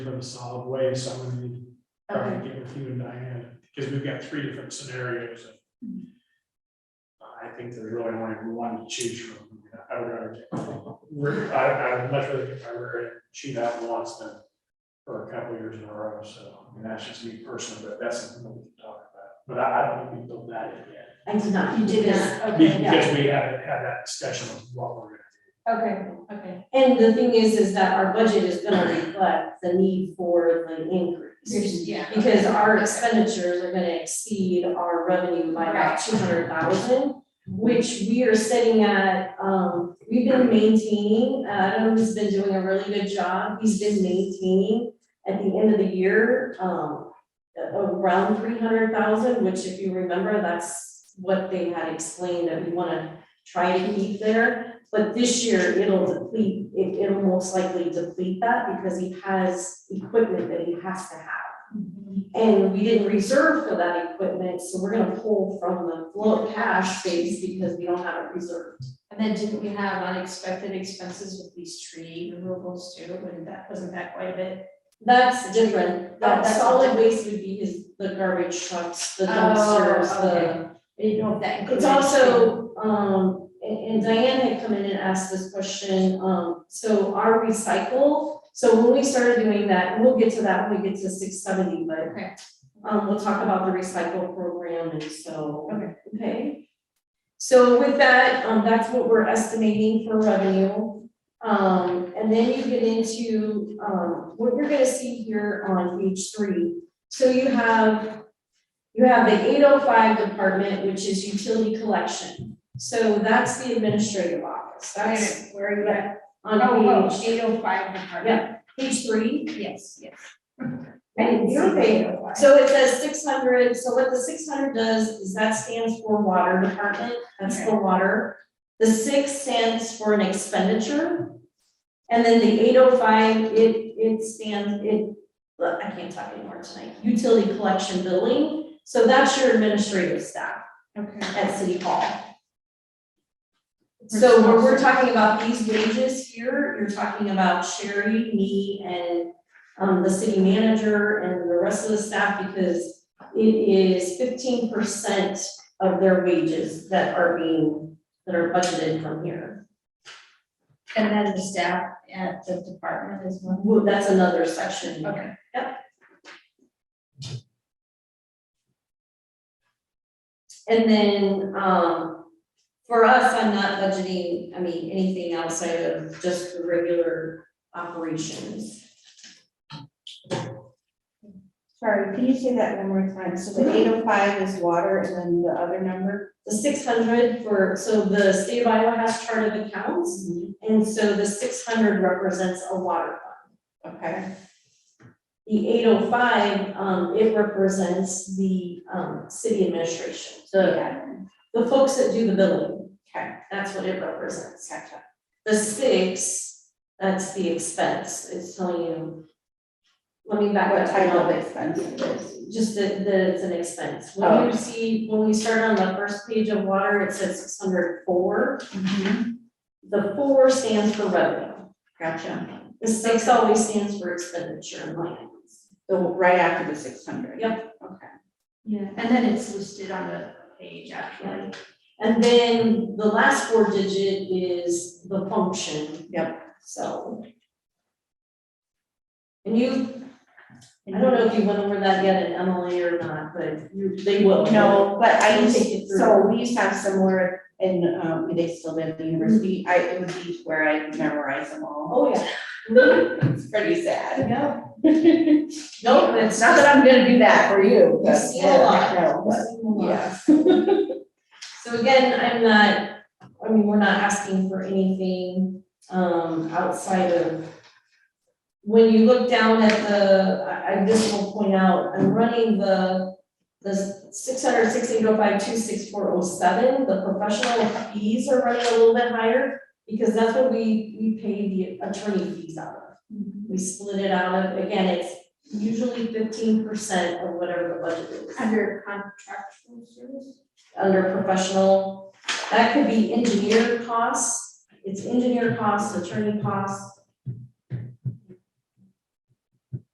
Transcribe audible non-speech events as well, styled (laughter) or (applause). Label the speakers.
Speaker 1: from a solid way, so I'm gonna need, to
Speaker 2: Okay,
Speaker 1: probably get with you and Diane, because we've got three different scenarios. and I think there's really only one to choose from, I would rather, get- I, I would much rather get my rear end chewed out once than for a couple years in a row, so, I mean, that's just me personally, but that's something that we can talk about, but I, I don't think we built that in yet.
Speaker 2: I did not, you did not, okay, yeah.
Speaker 1: Because we haven't had that discussion of what we're gonna do.
Speaker 2: Okay, okay.
Speaker 3: And the thing is, is that our budget is gonna reflect the need for the increase.
Speaker 2: Yeah.
Speaker 3: Because our expenditures are gonna exceed our revenue by about
Speaker 2: Right.
Speaker 3: two hundred thousand, which we are sitting at, um, we've been maintaining, Adam's been doing a really good job, he's been maintaining at the end of the year, um, a- around three hundred thousand, which if you remember, that's what they had explained that we wanna try to keep there. But this year, it'll deplete, it, it'll most likely deplete that because he has equipment that he has to have.
Speaker 2: Mm-hmm.
Speaker 3: And we didn't reserve for that equipment, so we're gonna pull from the flow cash base because we don't have it reserved.
Speaker 2: And then didn't we have unexpected expenses with these tree removals too, and that, wasn't that quite a bit?
Speaker 3: That's different, that
Speaker 2: That's-
Speaker 3: solid waste would be his, the garbage trucks, the
Speaker 2: Oh,
Speaker 3: dumpsters,
Speaker 2: okay.
Speaker 3: the
Speaker 2: I didn't know if that
Speaker 3: It's
Speaker 2: included.
Speaker 3: also, um, and and Diane had come in and asked this question, um, so our recycle, so when we started doing that, and we'll get to that when we get to six seventy, but
Speaker 2: Okay.
Speaker 3: um, we'll talk about the recycle program and so.
Speaker 2: Okay.
Speaker 3: Okay. So with that, um, that's what we're estimating for revenue. Um, and then you get into, um, what you're gonna see here on page three. So you have, you have the eight oh five department, which is utility collection. So that's the administrative office.
Speaker 2: Wait a
Speaker 3: That's
Speaker 2: minute, where are you at?
Speaker 3: on page,
Speaker 2: Eight oh five department.
Speaker 3: yeah, page three.
Speaker 2: Yes, yes.
Speaker 3: I didn't see
Speaker 2: You're
Speaker 3: the
Speaker 2: eight oh five.
Speaker 3: So it says six hundred, so what the six hundred does is that stands for water department, that's for water. The six stands for an expenditure. And then the eight oh five, it, it stands, it, look, I can't talk anymore tonight, utility collection billing. So that's your administrative staff
Speaker 2: Okay.
Speaker 3: at City Hall. So when we're talking about these wages here, you're talking about Sherry, me, and um, the city manager and the rest of the staff because it is fifteen percent of their wages that are being, that are budgeted from here.
Speaker 2: And then the staff at the department as well.
Speaker 3: Well, That's another section.
Speaker 2: Okay.
Speaker 3: And then, um, for us, I'm not budgeting, I mean, anything outside of just the regular operations.
Speaker 4: Sorry, can you say that one more time? So the eight oh five is water and then the other number?
Speaker 3: The six hundred for, so the state of Iowa has chart of accounts. And so the six hundred represents a water fund.
Speaker 4: Okay,
Speaker 3: The eight oh five, um, it represents the, um, city administration, the, the folks that do the billing.
Speaker 4: Okay.
Speaker 3: That's what it represents.
Speaker 4: gotcha.
Speaker 3: The six, that's the expense, it's telling you. Let me back
Speaker 4: What
Speaker 3: up.
Speaker 4: type
Speaker 3: now
Speaker 4: of expense it is?
Speaker 3: just that, that it's an expense.
Speaker 4: Oh.
Speaker 3: When you see, when we start on the first page of water, it says six hundred four. Mm-hmm. The four stands for revenue.
Speaker 4: Gotcha.
Speaker 3: The six always stands for expenditure and line items.
Speaker 4: So right after the six hundred?
Speaker 3: Yep.
Speaker 4: Okay.
Speaker 2: Yeah, and then it's listed on the page actually.
Speaker 3: And then the last four digit is the function.
Speaker 4: Yep.
Speaker 3: So. And you, I don't know if you went over that yet in Emily or not, but you, they will.
Speaker 4: No, but I used,
Speaker 3: Take it through.
Speaker 4: so we used to have similar and um they still live at the university.
Speaker 3: Mm-hmm.
Speaker 4: I it would be where I memorize them all.
Speaker 3: Oh, yeah. (laughs)
Speaker 4: It's pretty sad.
Speaker 3: Yeah.
Speaker 4: Not
Speaker 3: No, it's not
Speaker 4: that I'm gonna do that for you.
Speaker 3: You've
Speaker 4: but-
Speaker 3: seen a lot.
Speaker 4: No, but-
Speaker 3: Yeah. (laughs)
Speaker 4: yeah.
Speaker 3: So again, I'm not, I mean, we're not asking for anything, um, outside of. When you look down at the, I, I just will point out, I'm running the, the six hundred sixteen oh five two six four oh seven, the professional fees are running a little bit higher. Because that's what we, we pay the attorney fees out of.
Speaker 2: Mm-hmm.
Speaker 3: We split it out of, again, it's usually fifteen percent of whatever the budget is
Speaker 2: Under contractual service?
Speaker 3: under professional, that could be engineer costs, it's engineer costs, attorney costs,